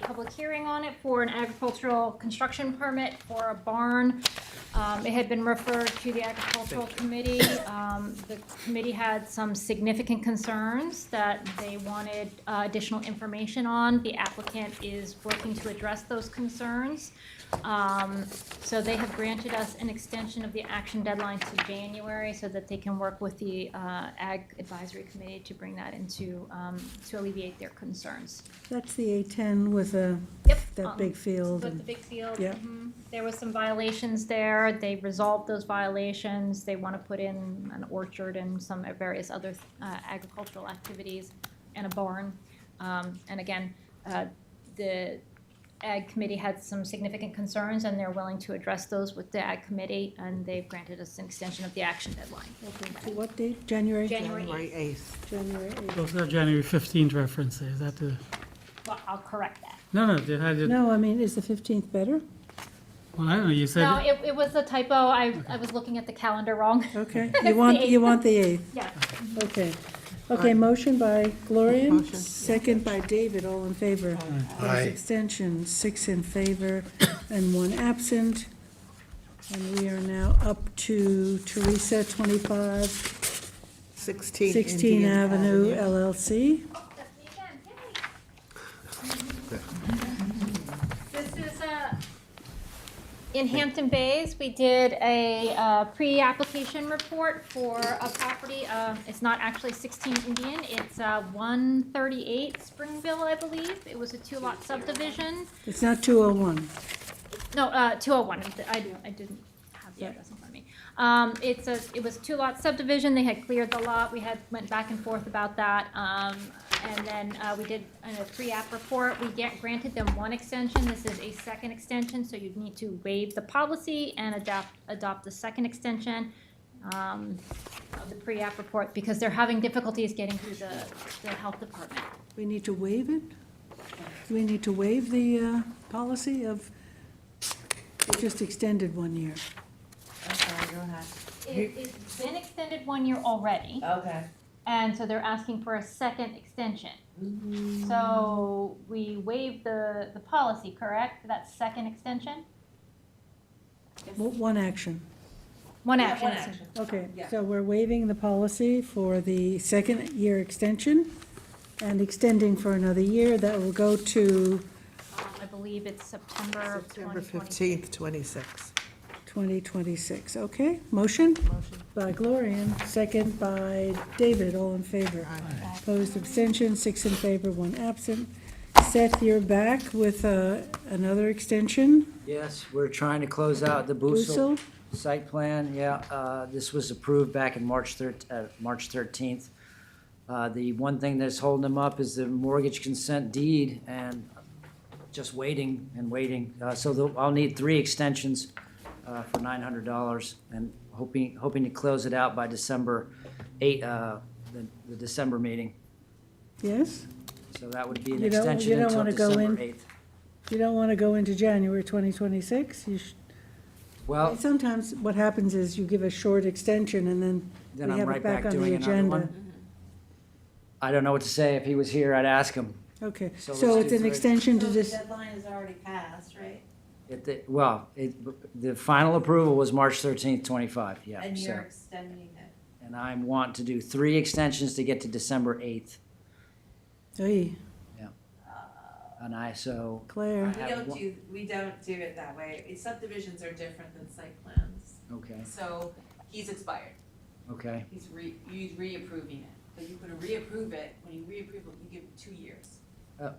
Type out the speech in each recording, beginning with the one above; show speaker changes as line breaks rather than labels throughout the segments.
public hearing on it for an agricultural construction permit for a barn. Um, It had been referred to the agricultural committee. Um, The committee had some significant concerns that they wanted uh, additional information on. The applicant is working to address those concerns. Um, So they have granted us an extension of the action deadline to January so that they can work with the uh, Ag Advisory Committee to bring that into, um, to alleviate their concerns.
That's the A-10 with the,
Yep. Um,
that big field.
With the
and-
big field.
Yeah.
mhm. There was some violations there. They resolved those violations. They want to put in an orchard and some various other uh, agricultural activities and a barn. Um, And again, uh, the Ag Committee had some significant concerns, and they're willing to address those with the Ag Committee, and they've granted us an extension of the action deadline.
Okay, To what date? January?
January
January 8th.
January 8th.
Those are January 15th references, is that the,
Well, I'll correct that.
no, no, they had it,
No, I mean, is the 15th better?
well, I don't know, you
No,
said,
it it was a typo. I I was looking at the calendar wrong.
Okay,
That's the
you want, you
8th.
want the 8th,
Yeah.
okay. Okay, motion by Gloria,
Motion.
second by David, all in favor. Opposed, Extension, six in favor and one absent. And we are now up to Teresa, 25,
16
16
Indian
Avenue LLC.
That's me again, yay. This is, uh, in Hampton Bays, we did a, uh, pre-application report for a property, uh, it's not actually sixteen Indian, it's, uh, one thirty-eight Springville, I believe. It was a two-lot subdivision,
It's not 201.
no, uh, two oh one, I, I didn't have the address in front of me. Um, it's a, it was two lot subdivision, they had cleared the lot, we had, went back and forth about that, um, and then, uh, we did a pre-app report, we get, granted them one extension, this is a second extension, so you'd need to waive the policy and adopt, adopt the second extension, um, of the pre-app report, because they're having difficulties getting through the, the health department.
We need to waive it? Do we need to waive the uh, policy of, it just extended one year?
I'm sorry, go ahead.
It, it's been extended one year already.
Okay.
And so they're asking for a second extension.
Mm-hmm.
So we waived the, the policy, correct, for that second extension?
W- One action.
One
Yeah,
action.
one action.
Okay,
Yeah.
so we're waiving the policy for the second year extension and extending for another year. That will go to
Um, I believe it's September of
September
2020.
15th, 26.
2026, okay? Motion
Motion.
by Gloria, second by David, all in favor. Opposed, abstention, six in favor, one absent. Seth, you're back with uh, another extension.
Yes, we're trying to close out the Boozle
Bussel,
site plan, yeah. uh, This was approved back in March thir, uh, March thirteenth. Uh, the one thing that's holding them up is the mortgage consent deed and just waiting and waiting. Uh, so the- I'll need three extensions, uh, for nine hundred dollars and hoping, hoping to close it out by December eight, uh, the, the December meeting.
yes?
So that would be an
You don't- you
extension
don't
until
wanna go in-
December eighth.
You don't want to go into January 2026? You sh-
Well,
Sometimes what happens is you give a short extension and then
then
we
I'm
have it
right
back
back
on the
doing another
agenda.
one. I don't know what to say. If he was here, I'd ask him.
Okay,
So
so
let's
it's
do
an
three.
extension to this,
deadline is already passed, right?
It, the- well, it, the final approval was March thirteenth, twenty-five, yeah.
And
so-
you're extending it.
And I want to do three extensions to get to December eighth,
hey,
and I, so,
Claire,
We
have
don't
one-
do, we don't do it that way. It- Subdivisions are different than site plans.
okay,
So he's expired.
okay,
He's re, he's reapproving it. But you can reapprove it. When you reapprove it, you give it two years.
Oh.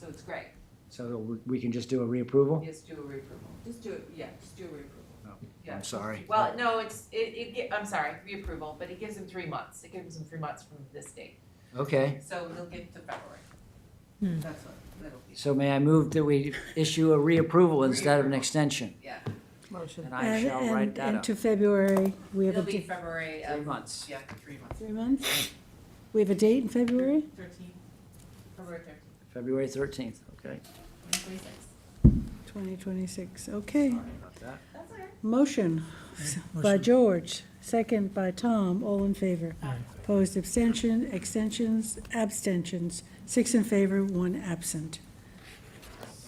So it's great.
so we- we can just do a reapproval?
Just do a reapproval. Just do it, yeah, just do a reapproval.
Oh,
Yeah.
I'm sorry.
Well, no, it's, it, it, gi- I'm sorry, reapproval, but it gives him three months. It gives him three months from this date.
Okay,
So he'll get to February.
Hmm.
That's what, that'll be,
so may I move that we issue a reapproval instead of an extension?
yeah.
Motion.
And I
and,
shall write
and,
that
and
up.
to February, we have a,
It'll be
di-
February
Three
of,
months.
yeah, three months.
three months? We have a date in February?
Thirteen, February thirteen,
February thirteenth, okay.
twenty twenty-six.
2026, okay.
Sorry about that.
That's all right.
Motion by
motion.
George, second by Tom, all in favor.
Aye.
Opposed, abstention, extensions, abstentions, six in favor, one absent.